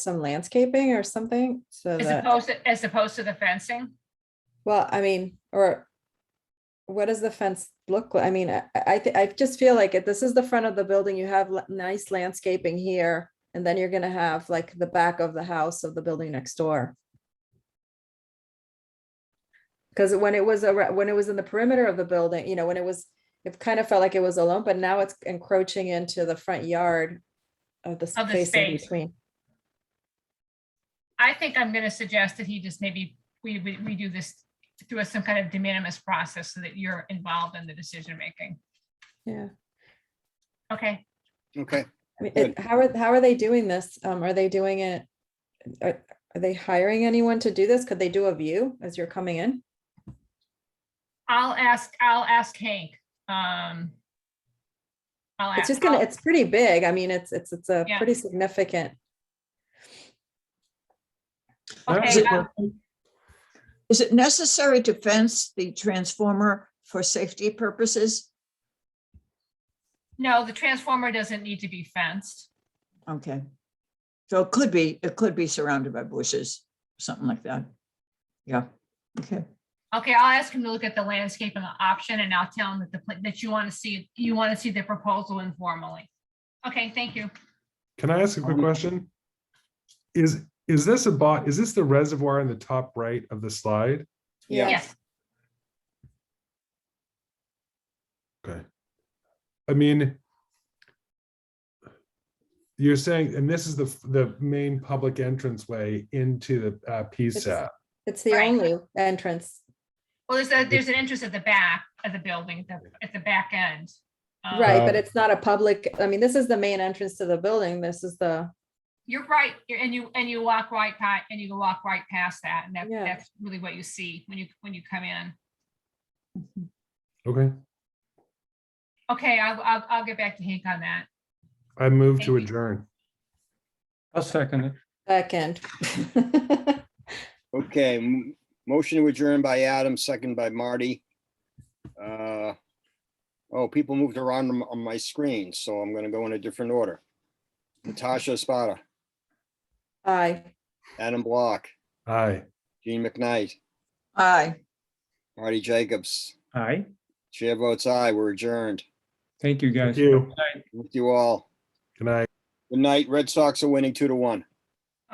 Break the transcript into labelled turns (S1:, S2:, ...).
S1: some landscaping or something so
S2: As
S1: that,
S2: opposed, to- as opposed to the fencing?
S1: well, I mean, or what does the fence look? like? I mean, I, I, thi- I just feel like it, this is the front of the building. You have la- nice landscaping here. And then you're gonna have like the back of the house of the building next door. Cause when it was, arou- when it was in the perimeter of the building, you know, when it was, it kind of felt like it was alone, but now it's encroaching into the front yard of the
S2: Of the
S1: space in
S2: space.
S1: between.
S2: I think I'm gonna suggest that he just maybe, we, we, we do this through a- some kind of de minimis process so that you're involved in the decision making.
S1: Yeah.
S2: Okay,
S3: Okay,
S1: I mean, it-
S3: Good.
S1: how are, how are they doing this? Um, are they doing it? Are, are they hiring anyone to do this? Could they do a view as you're coming in?
S2: I'll ask, I'll ask Hank. um, I'll
S1: It's
S2: ask,
S1: just gonna,
S2: I'll-
S1: it's pretty big. I mean, it's, it's, it's a
S2: Yeah.
S1: pretty significant.
S4: Is
S2: okay,
S4: it-
S2: I'll-
S4: Is it necessary to fence the transformer for safety purposes?
S2: Oh, no, the transformer doesn't need to be fenced.
S4: Okay. So it could be, it could be surrounded by bushes, something like that. Yeah, okay.
S2: Okay, I'll ask him to look at the landscape and the option and I'll tell him that the, pla- that you want to see, you want to see the proposal informally. Okay, thank you.
S5: Can I ask a quick
S3: Um,
S5: question? Is, is this a bot, is this the reservoir in the top right of the slide?
S3: Yeah.
S2: Yes,
S5: Okay. I mean, you're saying, and this is the, the main public entrance way into the uh, PSAP.
S1: It's the
S2: Right.
S1: only entrance.
S2: well, there's a, there's an entrance at the back of the building, the- at the back end. Um,
S1: Right, but
S5: Uh,
S1: it's not a public, I mean, this is the main entrance to the building. This is the,
S2: You're right, you're- and you, and you walk right by, and you walk right past that, and that,
S1: Yeah.
S2: that's really what you see when you, when you come in.
S5: Okay,
S2: Okay, I'll, I'll, I'll get back to Hank on that.
S5: I move
S2: Thank
S5: to
S2: you.
S5: adjourn.
S6: I'll second it.
S1: back end.
S3: okay. m- Motion to adjourn by Adam, second by Marty. Uh, Oh, people moved around on on my screen, so I'm going to go in a different order. Natasha Spada,
S1: Aye.
S3: Adam Block,
S5: Aye.
S3: Gene McKnight,
S4: Aye.
S3: Marty Jacobs.
S6: Aye.
S3: Chair votes aye. We're adjourned.
S6: Thank you, guys.
S5: Thank you.
S3: With you all.
S5: Good night.
S3: Good night. Red Sox are winning two to one.